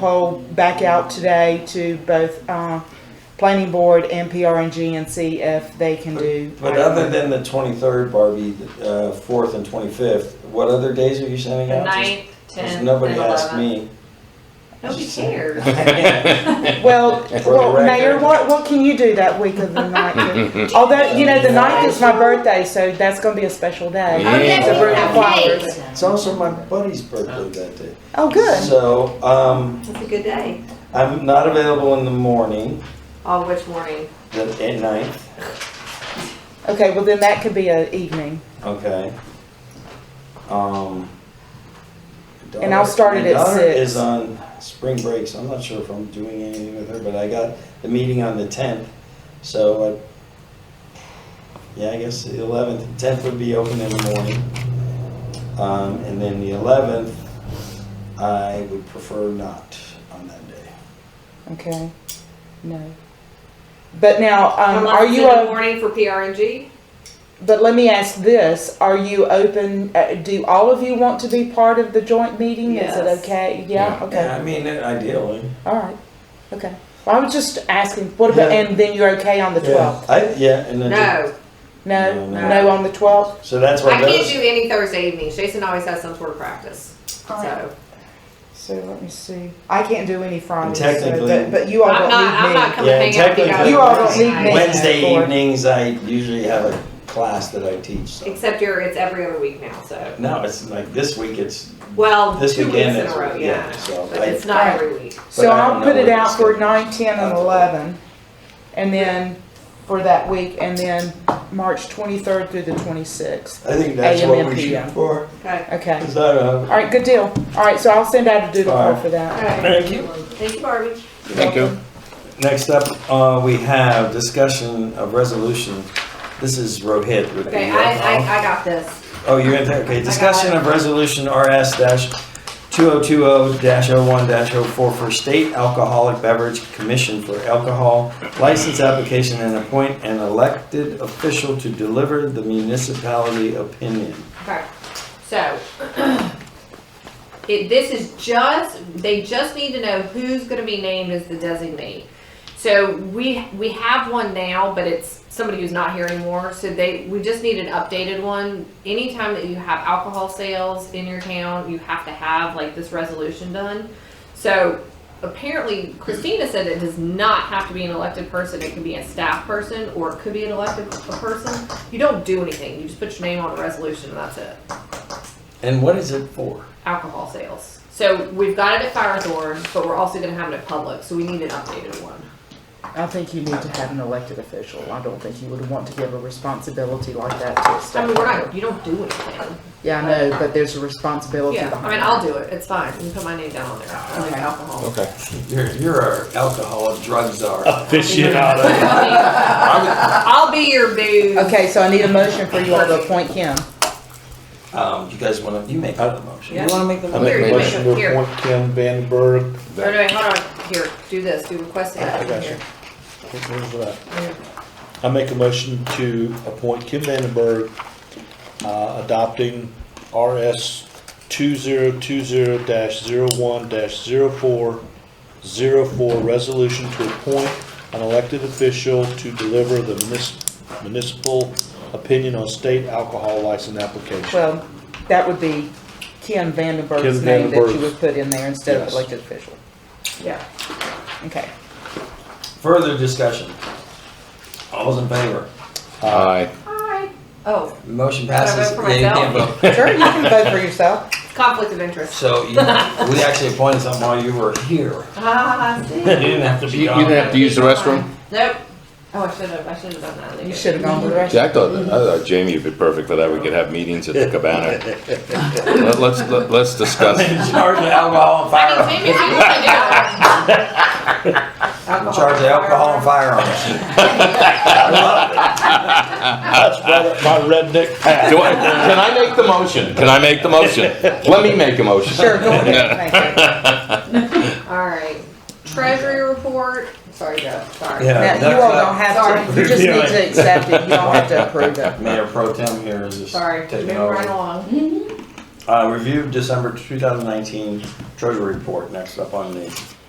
poll back out today to both uh, planning board and PRNG and see if they can do. But other than the 23rd, Barbie, uh, 4th and 25th, what other days are you sending The out? ninth, Because tenth, and Nobody asked eleventh. me. Nobody cares. Well, For the well, Mayor, record. what, what can you do that week of the ninth? Although, you know, the ninth is my birthday, so that's gonna be a special day. Oh, yeah, To we bring have the flowers. cake. It's also my buddy's birthday that day. Oh, good. So, um, That's a good day. I'm not available in the morning, Oh, which morning? the at ninth, Okay, well then that could be an evening. okay? Um. my And I'll daughter- start it my at daughter six. is on spring break, so I'm not sure if I'm doing anything with her, but I got the meeting on the 10th, so I, yeah, I guess the 11th, 10th would be open in the morning. Um, and then the 11th, I would prefer not on that day. Okay, no. But now, um, Unless are it's you, in the o- morning for PRNG? but let me ask this, are you open, uh, do all of you want to be part of the joint meeting? Is it Yes. okay? Yeah, Yeah. okay. I mean, ideally. All right, okay. Well, I was just asking, what about, Yeah. and then you're okay on the Yeah, 12th? I, yeah, and then, No, No, No, no on the 12th? so that's I why can't those, do any Thursday evenings. Jason always has some sort of practice, so. So let me see. I can't do any Fridays, so- technically- but, but you all I'm don't not, I'm need not me. coming Yeah, hang out with you technically- guys. You all don't need me. Wednesday Lord. evenings, I usually have a class that I teach, so. Except you're, it's every other week now, so. No, it's like this week, it's Well, This two weekend weeks in is- a row, yeah, yeah. so But I- it's not every week. So but I I'll don't put know it what out it's for gonna be. 9, 10, and 11, and then for that week, and then March 23rd through the 26th. I think that's AM what and we PM. shoot for. uh, Okay. Okay. 'cause I don't All know. right, good deal. All right, so I'll send out a doodle All poll right. for that. Thank you. Thank you, Barbie. Thank you. Next up, uh, we have discussion of resolution. This is Rohit with the. Okay, uh, I, I, I got this. Oh, you're in there, okay. Discussion it. of resolution RS dash two oh two oh dash oh one dash oh four for state alcoholic beverage commission for alcohol license application and appoint an elected official to deliver the municipality opinion. Okay, so, it, this is just, they just need to know who's gonna be named as the designee. So we, we have one now, but it's somebody who's not here anymore, so they, we just need an updated one. Anytime that you have alcohol sales in your town, you have to have like this resolution done. So apparently Christina said it does not have to be an elected person, it can be a staff person, or it could be an elected person. You don't do anything, you just put your name on a resolution and that's it And what is it for? alcohol sales. So we've got it at Firethorn, but we're also gonna have it at Public, so we need an updated one. I think you need to have an elected official. I don't think you would want to give a responsibility like that to a staff. I mean, we're member. not, you don't do anything. Yeah, I know, but there's a responsibility Yeah, behind I mean, I'll do it, it's fine, you can put my name down on there, I like Okay. alcohol. Okay. You're, you're our alcoholic drug czar. Aficionado. I'll be your boo. it. Okay, so I need a motion for you all to appoint him. Um, you guys wanna, you make out the motion. Yeah. You wanna make the I motion? make a Here, motion to here. appoint Ken Van Berg. Oh, no, wait, hold on, here, do this, do request it. I got you. Here. Where's that? I make a motion to appoint Ken Van den Berg, uh, adopting RS two zero two zero dash zero one dash zero four zero four resolution to appoint an elected official to deliver the munis- municipal opinion on state alcohol license application. Well, that would be Ken Vandenberg's Ken name that you Vandenberg's. would put in there instead of Yes. elected official. Yeah. Okay. Further discussion. All those in favor? Aye. Hi. Oh, Motion I vote passes. for Yeah, you can't myself? vote. Sure, you can vote for yourself. conflict of interest. So you, we actually appointed someone while you were here. Ah, I see. You didn't have to You you didn't have to use the restroom? Nope. Oh, I should have, I should have done that. You should have gone with the rest. See, I thought, I thought Jamie would be perfect for that, we could have meetings at the cabana. Let- Let's, let- let's discuss. In charge of alcohol and I firearms. mean, maybe we should do. In charge of alcohol and firearms. That's my my redneck pack. Do I, can I make the motion? Can I make the motion? Let me make a motion. Sure, go ahead. Thank you. All right, treasury report, sorry, Jeff, sorry. Yeah. Now, you all don't have to, you just need Sorry. to accept it. You don't have to approve it. Mayor Pro Tem here is just Sorry, taking moving right over. along. Uh, review December 2019 Treasury Report, next up on the